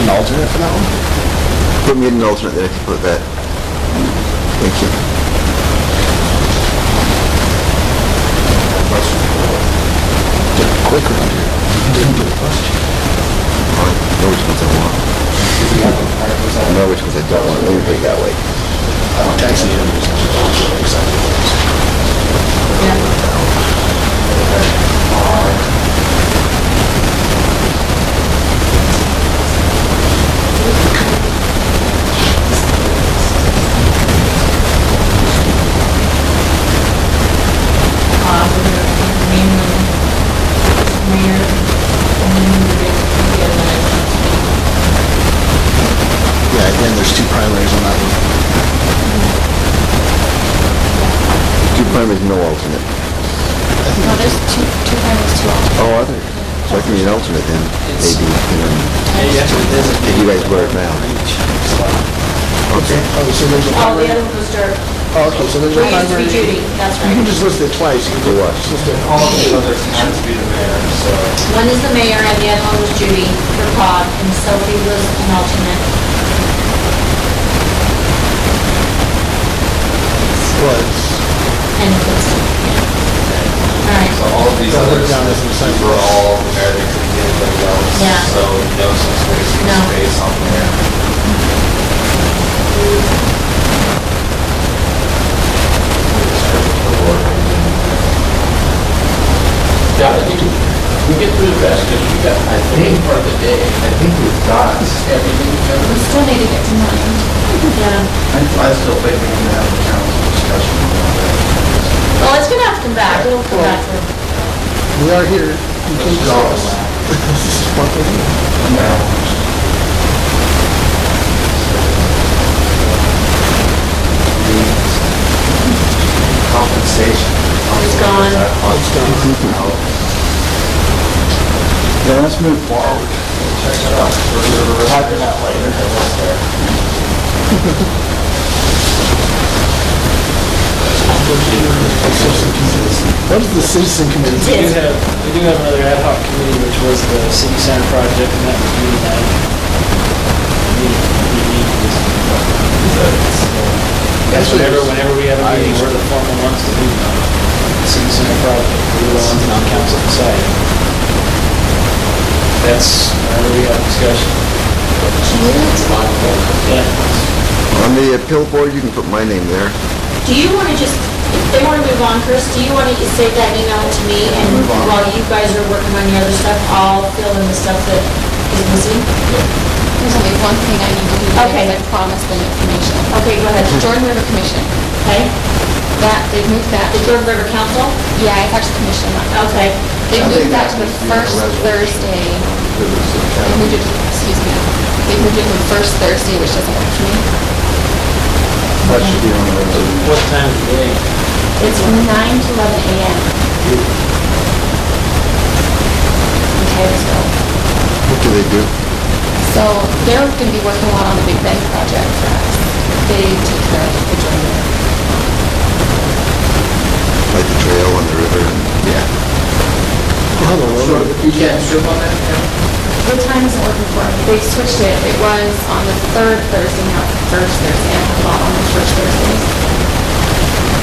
an alternate for that one? Put me in an alternate there if you put that. Thank you. Quick round here. Didn't do a question. I know which ones I want. I know which ones I don't want. Let me put it that way. Taxi is exciting. uh, with the main, mayor, and then the big, the Yeah, again, there's two primaries on that one. Two primaries, no alternate. No, there's two, two families, two alternates. Oh, are there? So I can be an alternate then, maybe, you know, if you guys were now. Okay. Oh, so there's a Oh, the primary? other one was Dirk. Oh, okay, so there's a I used to be primary. Judy, that's You can right. just list it twice. You Do can what? just list it all. All the others have to be the mayor, so One is the mayor and the other one was Judy for pod, and Sophie was an alternate. Was. And it was, yeah. All right, so all of these Don't look others, down at the side. these were all the mayor that could be anybody else. Yeah. So no such space, No. space on there. Yeah, I think we get through the rest, because we got, I think, part of the day, I think we've got, everything covered. we still need to get to mine. Yeah. I I still think we need to have a council discussion about that. Well, it's gonna have to come back, it'll come back. We are here. You can just. This is what they do. Compensation. It's gone. Oh, It's done. Yeah, let's move forward. Check it out. We're typing out later. What is the citizen committee? We do have, we do have another ad hoc committee, which was the city center project, and that was really bad. That's whenever, whenever we have a meeting, we're the formal ones to do the city center project, we're the ones on council side. That's whenever we have discussion. Yeah. On the appeal board, you can put my name there. Do you wanna just, if they wanna move on, Chris, do you wanna just save that email to me? And while you guys are working on the other stuff, I'll fill in the stuff that is missing? There's only one thing I need to do, Okay. because I promised them information. Okay, go ahead. The Jordan River Commission, Okay, that, they've moved that, the Jordan River Council? yeah, it's actually commission, not- Okay, they've moved that to the first Thursday, they moved it, excuse me, they moved it to the first Thursday, which doesn't work for me. That should be on the resolution. What time of day? It's from nine to eleven AM. Okay, let's go. What do they do? So they're gonna be working a lot on the Big Bend project for us. They take care of the Jordan River. Like the trail on the river and, yeah. You can't strip on that? What time is it working for? They switched it. It was on the third Thursday, not the first Thursday. I have a lot on the first Thursdays.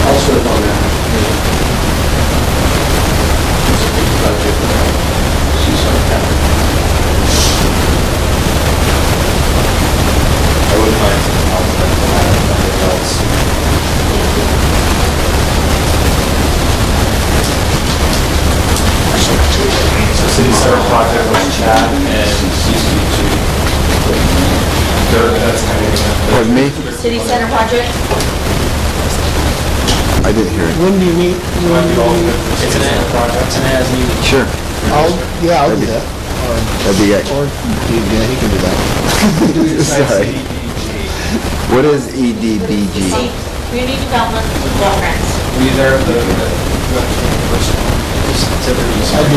I'll strip on that. It's a big project, but she's on that. I would like to compliment the mayor and everyone else. So city center project was Chad and CCG. Dirk, that's kind of. Pardon me? city center project? I didn't hear it. When do you meet? When do you meet? It's an, ad- it's an as needed. Sure. I'll, Oh, yeah, I'll That'd do be- that. That'd be it. Or, yeah, he can do that. Sorry. CDBG. What is E EDBG? See, community development, block grants. uh, These are the, the, the personal. It's a- it's a-